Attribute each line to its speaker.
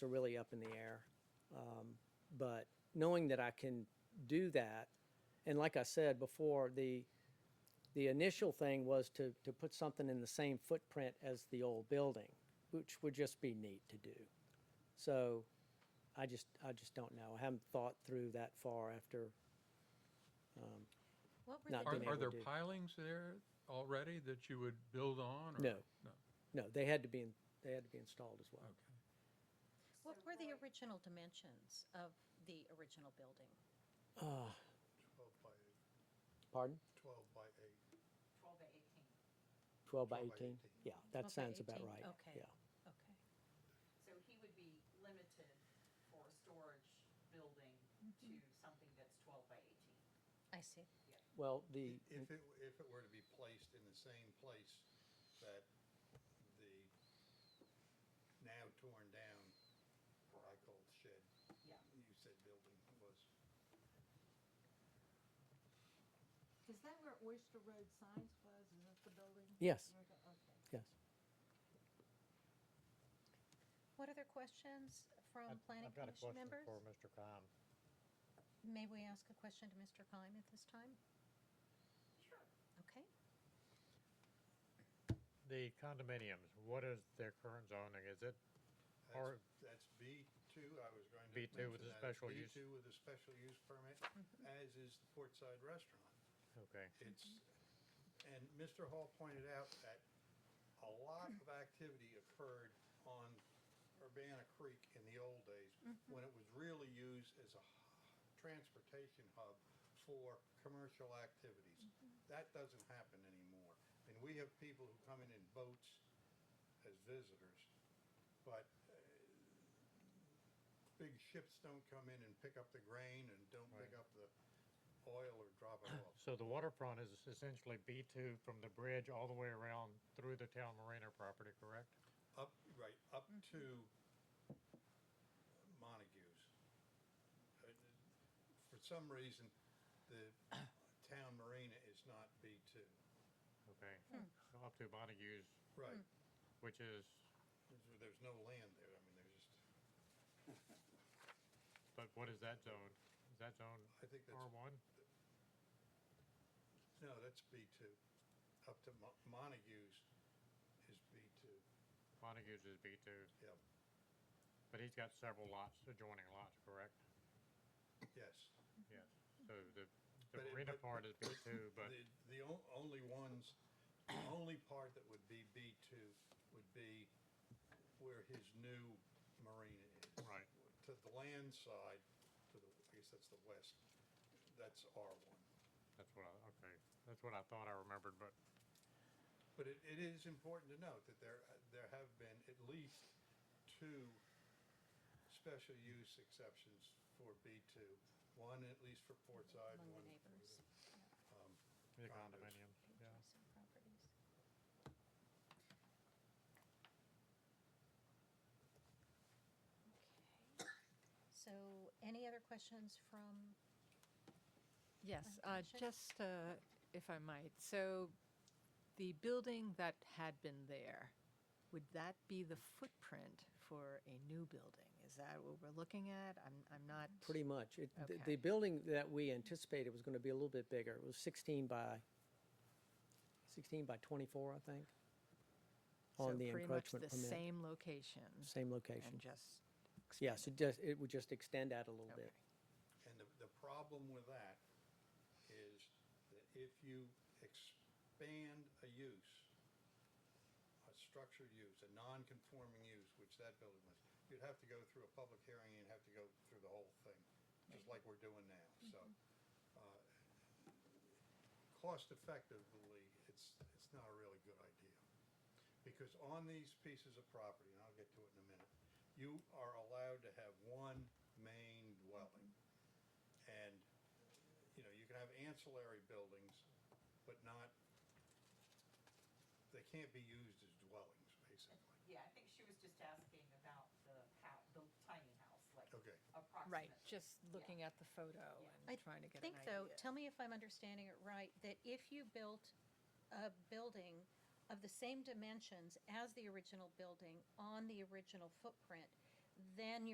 Speaker 1: are really up in the air. Um, But knowing that I can do that, and like I said before, the, the initial thing was to, to put something in the same footprint as the old building, which would just be neat to do. So I just, I just don't know. I haven't thought through that far after. um,
Speaker 2: What were
Speaker 1: Not
Speaker 2: the
Speaker 1: being
Speaker 2: di-
Speaker 1: able
Speaker 3: Are, are there
Speaker 1: do.
Speaker 3: pilings there already that you would build on? or-
Speaker 1: No.
Speaker 3: No,
Speaker 1: No, they had to be, in- they had to be installed as well.
Speaker 3: okay.
Speaker 2: what were the original dimensions of the original building?
Speaker 4: 12 by 8,
Speaker 1: Oh. Pardon?
Speaker 4: 12 by 8.
Speaker 5: 12 to
Speaker 1: 12
Speaker 5: 18.
Speaker 1: by
Speaker 4: 12 by
Speaker 1: 18?
Speaker 4: 18.
Speaker 1: Yeah,
Speaker 2: Okay,
Speaker 1: that sounds about
Speaker 2: 18.
Speaker 1: right.
Speaker 2: Okay,
Speaker 1: Yeah.
Speaker 2: okay.
Speaker 5: So he would be limited for a storage building
Speaker 2: Mm-hmm.
Speaker 5: to something that's 12 by 18.
Speaker 2: I see.
Speaker 1: Well, the,
Speaker 4: If it, if it were to be placed in the same place that the now torn down, what I called shed,
Speaker 5: Yeah.
Speaker 4: you said building was,
Speaker 6: Is that where Oyster Road Science was? Is that the building?
Speaker 1: Yes.
Speaker 6: Where the- Okay.
Speaker 1: yes.
Speaker 2: What other questions from
Speaker 7: I've-
Speaker 2: planning commission members?
Speaker 7: I've got a question for Mr. Khan.
Speaker 2: May we ask a question to Mr. Kime at this time?
Speaker 5: Sure.
Speaker 2: Okay.
Speaker 7: The condominiums, what is their current zoning? Is it,
Speaker 4: that's,
Speaker 7: Or-
Speaker 4: that's B2, I was going to
Speaker 7: B2 with
Speaker 4: mention
Speaker 7: a
Speaker 4: that.
Speaker 7: special use.
Speaker 4: B2 with a special use permit,
Speaker 2: Mm-hmm.
Speaker 4: as is the Portside Restaurant.
Speaker 7: okay,
Speaker 4: It's, and Mr. Hall pointed out that a lot of activity occurred on Urbana Creek in the old days,
Speaker 2: Mm-hmm.
Speaker 4: when it was really used as a h- transportation hub for commercial activities.
Speaker 2: Mm-hmm.
Speaker 4: That doesn't happen anymore. And we have people who come in in boats as visitors, but uh, big ships don't come in and pick up the grain and don't pick
Speaker 7: Right.
Speaker 4: up the oil or drop it off.
Speaker 7: so the waterfront is essentially B2 from the bridge all the way around through the town marina property, correct?
Speaker 4: Up, right, up to Montague's. Uh, For some reason, the town marina is not B two.
Speaker 7: Okay,
Speaker 2: Hmm.
Speaker 7: up to Montague's,
Speaker 4: Right.
Speaker 7: which is,
Speaker 4: There's- There's no land there, I mean, there's just,
Speaker 7: but what is that zone? Is that zone
Speaker 4: I think that's,
Speaker 7: R1?
Speaker 4: no, that's B two. Up to Mo- Montague's is B two,
Speaker 7: Montague's is B2,
Speaker 4: yep,
Speaker 7: but he's got several lots, adjoining lots, correct?
Speaker 2: Mm-hmm.
Speaker 4: yes.
Speaker 7: Yes, so the,
Speaker 4: But
Speaker 7: the
Speaker 4: it-
Speaker 7: marina
Speaker 4: but-
Speaker 7: part is B2, but,
Speaker 4: The, the on- only ones, the only part that would be B two would be where his new marina is.
Speaker 7: Right.
Speaker 4: To the land side, to the, I guess that's the west, that's R one.
Speaker 7: that's what I, okay, that's what I thought I remembered, but
Speaker 4: But it, it is important to note that there, there have been at least two special use exceptions for B two. One at least for Portside,
Speaker 2: Among the
Speaker 4: one
Speaker 2: neighbors.
Speaker 4: for um,
Speaker 7: the
Speaker 4: Condos.
Speaker 7: condominiums, yeah.
Speaker 2: Adjacent properties. Okay. So any other questions from
Speaker 8: Yes,
Speaker 2: Uh,
Speaker 8: uh,
Speaker 2: sure.
Speaker 8: just uh, if I might, so the building that had been there, would that be the footprint for a new building? Is that what we're looking at? I'm, I'm not.
Speaker 1: Pretty much. It, the, the
Speaker 8: Okay.
Speaker 1: building that we anticipated was going to be a little bit bigger. It was 16 by, 16 by 24, I think, on the
Speaker 8: so pretty much
Speaker 1: encroachment
Speaker 8: the
Speaker 1: permit.
Speaker 8: same location.
Speaker 1: Same location.
Speaker 8: And just.
Speaker 1: Yes, it
Speaker 8: expand
Speaker 1: just, it would just extend out a little
Speaker 8: it.
Speaker 1: bit.
Speaker 8: Okay.
Speaker 4: And the, the problem with that is that if you expand a use, a structured use, a non-conforming use, which that building was, you'd have to go through a public hearing and have to go through the whole thing, just like we're doing now, so. uh, Cost effectively, it's, it's not a really good idea. Because on these pieces of property, and I'll get to it in a minute, you are allowed to have one main dwelling. And, you know, you can have ancillary buildings, but not, they can't be used as dwellings, basically.
Speaker 5: Yeah, I think she was just asking about the house, the tiny house, like
Speaker 4: Okay.
Speaker 5: approximately.
Speaker 8: Right, just looking
Speaker 5: Yeah.
Speaker 8: at the photo
Speaker 2: I
Speaker 5: Yeah.
Speaker 8: and trying to get an
Speaker 2: think, though,
Speaker 8: idea.
Speaker 2: tell me if I'm understanding it right, that if you built a building of the same dimensions as the original building on the original footprint, then